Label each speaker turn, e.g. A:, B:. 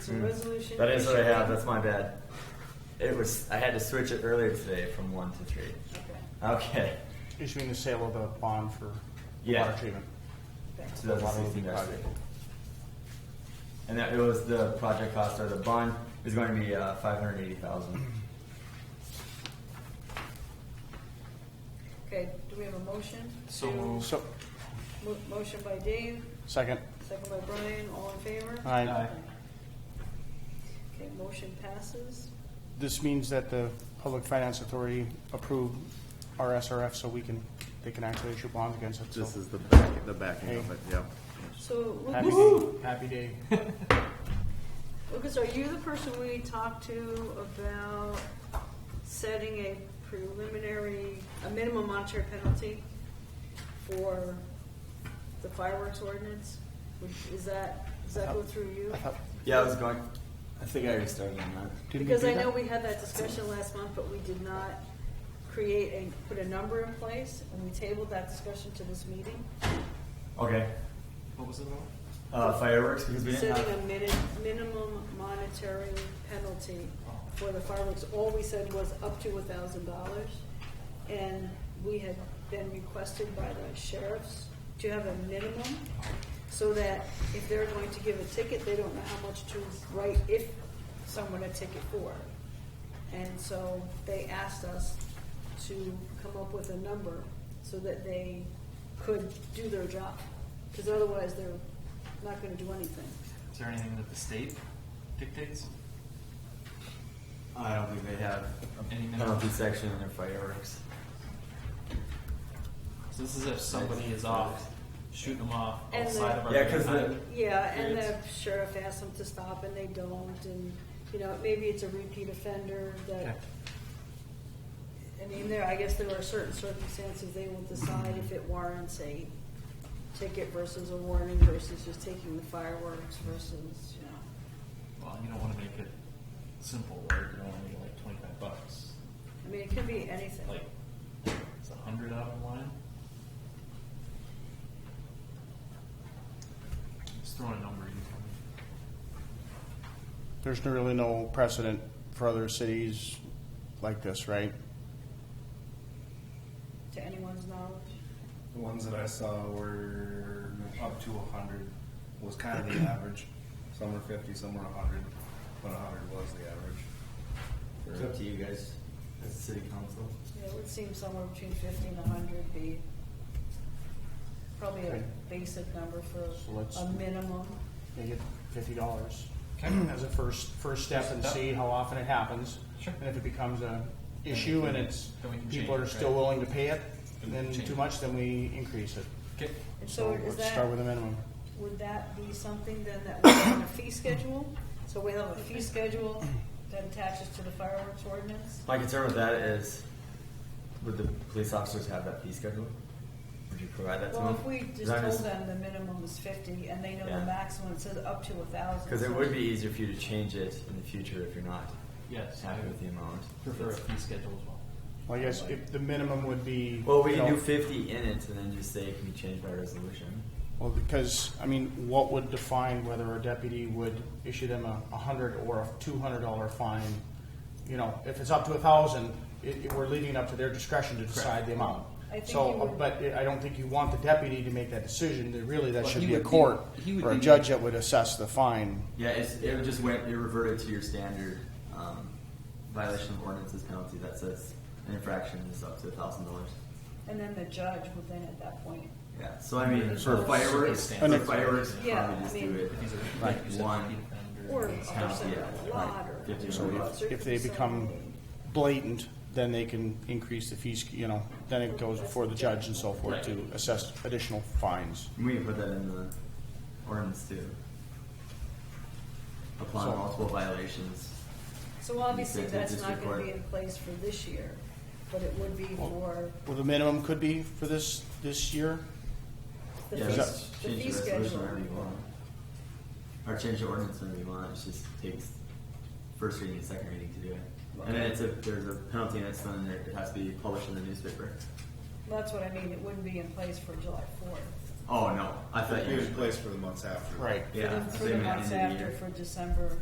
A: So resolution.
B: Mm. Hmm. That is what I
A: issuing-
B: have. That's my bad. It was I had to switch it earlier today from one to three.
A: Okay,
B: Okay.
C: Issuing the sale of the bond for the
B: Yeah.
C: water treatment.
A: thanks.
B: So that's
C: Water
B: the
C: leak
B: project.
C: project.
B: And that it was the project cost or the bond is going to be uh, five hundred eighty thousand.
A: Okay, do we have a motion?
D: So
A: to-
D: moved.
C: So,
A: Mo- Motion by Dave,
C: second,
A: second by Brian, all in favor?
C: I,
A: Okay, motion passes.
C: this means that the Public Finance Authority approved our SRF so we can, they can actually issue bonds against it,
E: This
C: so.
E: is the back, the backing of
C: Hey.
E: it, yep.
A: So
C: Happy
A: Lucas,
C: day, happy day.
A: Lucas, are you the person we talked to about setting a preliminary, a minimum monetary penalty for the fireworks ordinance? Would- Is that, does that go through you?
C: I thought-
B: Yeah, I was going. I think I already started on that.
C: didn't we
A: Because
C: do
A: I know
C: that?
A: we had that discussion last month, but we did not create and put a number in place, and we tabled that discussion to this meeting.
B: Okay.
D: What was it about?
B: Uh, fireworks because we didn't
A: Setting a
B: have.
A: mini- minimum monetary penalty for the fireworks, all we said was up to a thousand dollars. And we had been requested by the sheriffs to have a minimum, so that if they're going to give a ticket, they don't know how much to write if someone a ticket for. And so they asked us to come up with a number so that they could do their job, because otherwise they're not gonna do anything.
D: Is there anything that the state dictates?
B: I don't think they have
D: Any
B: a
D: minimum?
B: penalty section in their fireworks.
D: So this is if somebody is off, shooting them off
A: And
D: outside
A: the-
D: of our.
B: Yeah, 'cause the-
D: time.
A: Yeah, and the
D: Periods.
A: sheriff asks them to stop and they don't, and, you know, maybe it's a repeat offender that,
D: Okay.
A: I mean, there, I guess there are certain circumstances they will decide if it warrants a ticket versus a warning versus just taking the fireworks versus, you know.
D: Well, you don't wanna make it simple, right? You don't wanna make it like twenty-five bucks.
A: I mean, it could be anything.
D: Like, it's a hundred out of line? Just throwing a number, you tell me.
C: There's really no precedent for other cities like this, right?
A: To anyone's knowledge?
F: The ones that I saw were up to a hundred was kind of the average. Some were fifty, some were a hundred, but a hundred was the average.
B: It's up to you guys as the city council.
A: Yeah, it would seem somewhere between fifty and a hundred be probably a
C: Okay.
A: basic number
C: So
A: for
C: let's-
A: a minimum.
C: They get fifty dollars
D: Okay.
C: as a first, first step and see how often it happens.
D: Sure.
C: And if it becomes a issue and it's,
D: Then we can
C: people
D: change
C: are
D: it,
C: still
D: right?
C: willing to pay it,
D: Then we
C: then
D: can change
C: too
D: it.
C: much, then we increase it.
D: Okay,
A: And
C: So
A: so
C: let's
A: is that?
C: start with a minimum.
A: Would that be something then that we have on a fee schedule? So we have a fee schedule that attaches to the fireworks ordinance?
B: My concern with that is, would the police officers have that fee schedule? Would you provide that to them?
A: Well, if we just
B: 'Cause I'm
A: told them the minimum is fifty and they know
B: Yeah.
A: the maximum, it says up to a thousand.
B: Because it would be easier for you to change it in the future if you're not
D: yes, I
B: happy with the amount.
D: prefer a fee schedule as well.
C: Well, I guess if the minimum would be.
B: Well, we
C: you
B: can
C: know,
B: do fifty in it and then just say it can be changed by resolution.
C: Well, because, I mean, what would define whether a deputy would issue them a, a hundred or a two hundred dollar fine? You know, if it's up to a thousand, it, it, we're leaving up to their discretion to decide the amount.
A: I think you
C: So,
A: would-
C: but I don't think you want the deputy to make that decision, That really, that
D: Well,
C: should
D: he
C: be a
D: would be-
C: court
D: he would
C: or a
D: be-
C: judge that would assess the fine.
B: Yeah, it's, it would just went, it reverted to your standard, um, violation of ordinances penalty that says an infraction is up to a thousand dollars.
A: And then the judge would then at that point,
B: Yeah, so I mean,
D: So
B: for
D: it's-
B: fireworks,
D: it's
B: for
D: standard.
B: fireworks,
A: Yeah,
B: probably
A: I
B: just
A: mean-
B: do it.
D: If he's a,
B: Like
D: like you said,
B: one.
D: repeat offender,
A: or
D: it's
A: a
B: Yeah,
A: person
B: right.
A: a lot or.
B: Fifty
C: So
B: or
C: if, if they become blatant, then they can increase the fees, you know, then it goes before the judge and so forth to assess additional fines.
B: We can put that in the ordinance too. Upon
C: So-
B: multiple violations.
A: So obviously,
B: You said
A: that's
B: this
A: not gonna
B: report.
A: be in place for this year, but it would be for
C: Well, the minimum could be for this, this year,
A: the
B: Yeah,
A: fee,
B: just
A: the fee
B: change the resolution
A: schedule.
B: whenever you want. Or change the ordinance whenever you want, it just takes first reading and second reading to do it. And then it's a, there's a penalty and it's done, there, it has to be published in the newspaper.
A: That's what I mean, it wouldn't be in place for July fourth.
B: Oh, no, I thought
F: It
B: you.
F: was placed for the months after.
C: right?
B: Yeah.
A: For
B: so
A: the
B: you meant
A: months
B: end of the
A: after,
B: year.
A: for December.